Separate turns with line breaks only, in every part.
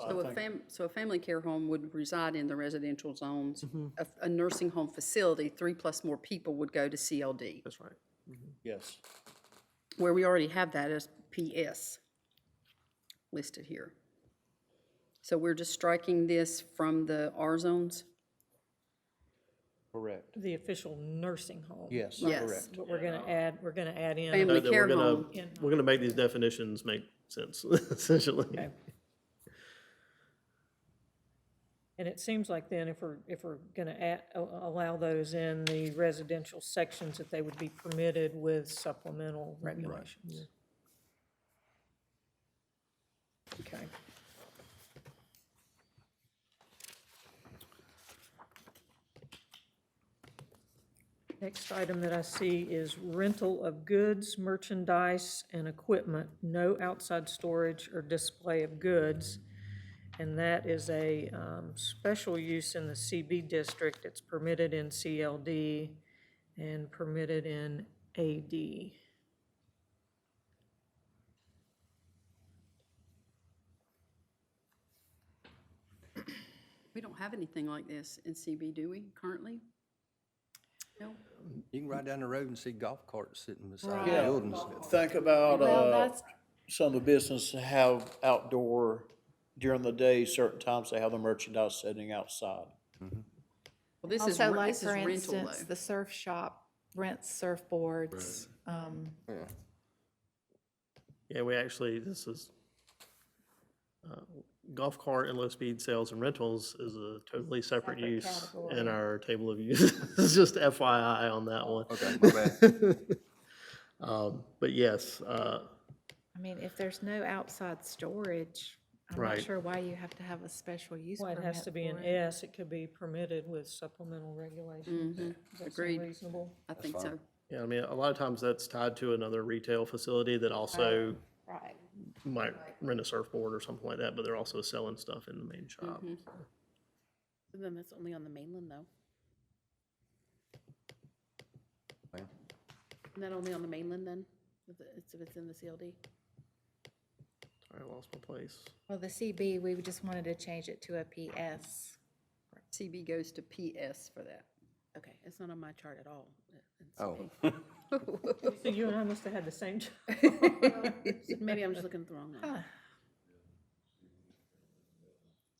I
So a
think-
fam, so a family care home would reside in the residential zones.
Mm-hmm.
A, f- a nursing home facility, three plus more people would go to CLD,
That's right.
Yes.
where we already have that as PS listed here. So we're just striking this from the R zones?
Correct.
The official nursing home.
Yes,
Yes.
correct.
But we're gonna add, we're gonna add in.
Family
That we're
care
gonna-
home.
We're gonna make these definitions make sense, essentially.
And it seems like then if we're, if we're gonna add, a- allow those in the residential sections, that they would be permitted with supplemental regulations. Okay. Next item that I see is rental of goods, merchandise, and equipment, no outside storage or display of goods. And that is a um, special use in the CB district. It's permitted in CLD and permitted in AD.
We don't have anything like this in CB, do we, currently? No?
You can ride down the road and see golf carts sitting beside
Yeah.
buildings.
Think about,
Well,
uh,
that's,
some of the businesses have outdoor during the day, certain times they have the merchandise sitting outside.
Well, this is,
also
re-
like,
this is
for
rental
instance,
though.
the surf shop rents surfboards. um,
Yeah, we actually, this is, uh, golf cart and low-speed sales and rentals is a totally separate use in our table of uses. It's just FYI on that one.
Okay, my bad.
Um, But yes, uh,
I mean, if there's no outside storage, I'm not
Right.
sure why you have to have a special use
Why
permit
it has to be an
for it.
S, it could be permitted with supplemental regulations. Does that
agreed.
seem reasonable?
I think so.
yeah, I mean, a lot of times that's tied to another retail facility that also
Right.
might rent a surfboard or something like that, but they're also selling stuff in the main shop.
Then that's only on the mainland, though. Isn't that only on the mainland then? If it- If it's in the CLD?
Sorry, I lost my place.
Well, the CB, we just wanted to change it to a PS.
CB goes to PS for that.
Okay, it's not on my chart at all. uh, in
Oh.
CLD.
So you and I must have had the same job.
Maybe I'm just looking at the wrong line.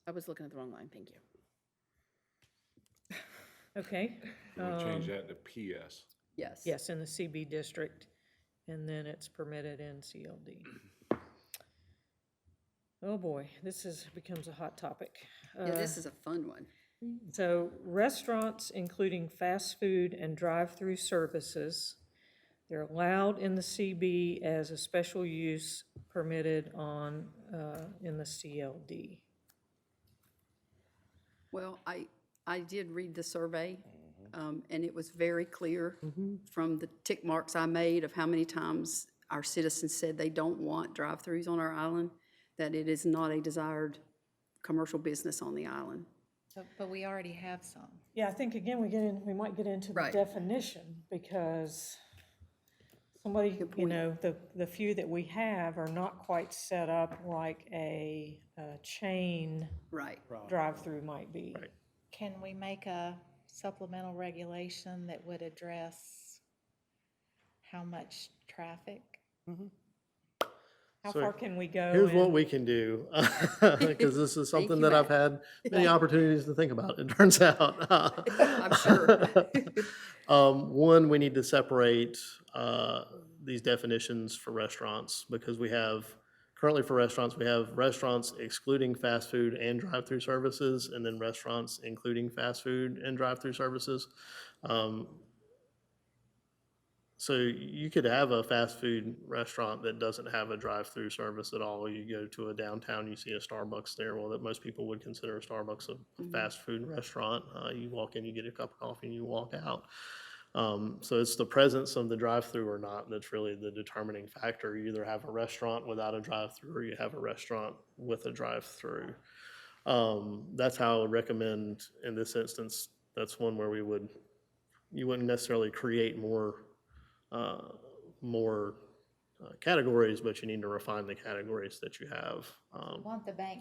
I was looking at the wrong line, thank you.
Okay,
We'll change that to PS.
Yes.
yes, in the CB district, and then it's permitted in CLD. Oh, boy, this is, becomes a hot topic.
Yeah, this
Uh,
is a fun one.
So restaurants, including fast food and drive-through services, they're allowed in the CB as a special use permitted on, uh, in the CLD.
Well, I, I did read the survey, um, and it was very clear from the tick marks I made of how many times our citizens said they don't want drive-throughs on our island, that it is not a desired commercial business on the island.
So- But we already have some.
Yeah, I think again, we get in, we might get into the
Right.
definition because somebody, you know, the, the few that we have are not quite set up like a, uh chain
Right.
drive-through might be.
Can we make a supplemental regulation that would address how much traffic?
How
So
far can we go?
Here's what
in-
we can do, because this is something that I've had many opportunities to think about, it turns out. I'm
sure.
Um, one, we need to separate, uh, these definitions for restaurants, because we have, currently for restaurants, we have restaurants excluding fast food and drive-through services, and then restaurants including fast food and drive-through services. Um, so you could have a fast food restaurant that doesn't have a drive-through service at all. You go to a downtown, you see a Starbucks there. Well, that most people would consider a Starbucks a fast food restaurant. Uh, you walk in, you get a cup of coffee, and you walk out. Um, so it's the presence of the drive-through or not that's really the determining factor. You either have a restaurant without a drive-through, or you have a restaurant with a drive-through. Um, that's how I would recommend in this instance. That's one where we would, you wouldn't necessarily create more uh, more uh, categories, but you need to refine the categories that you have. Um,
Want the bank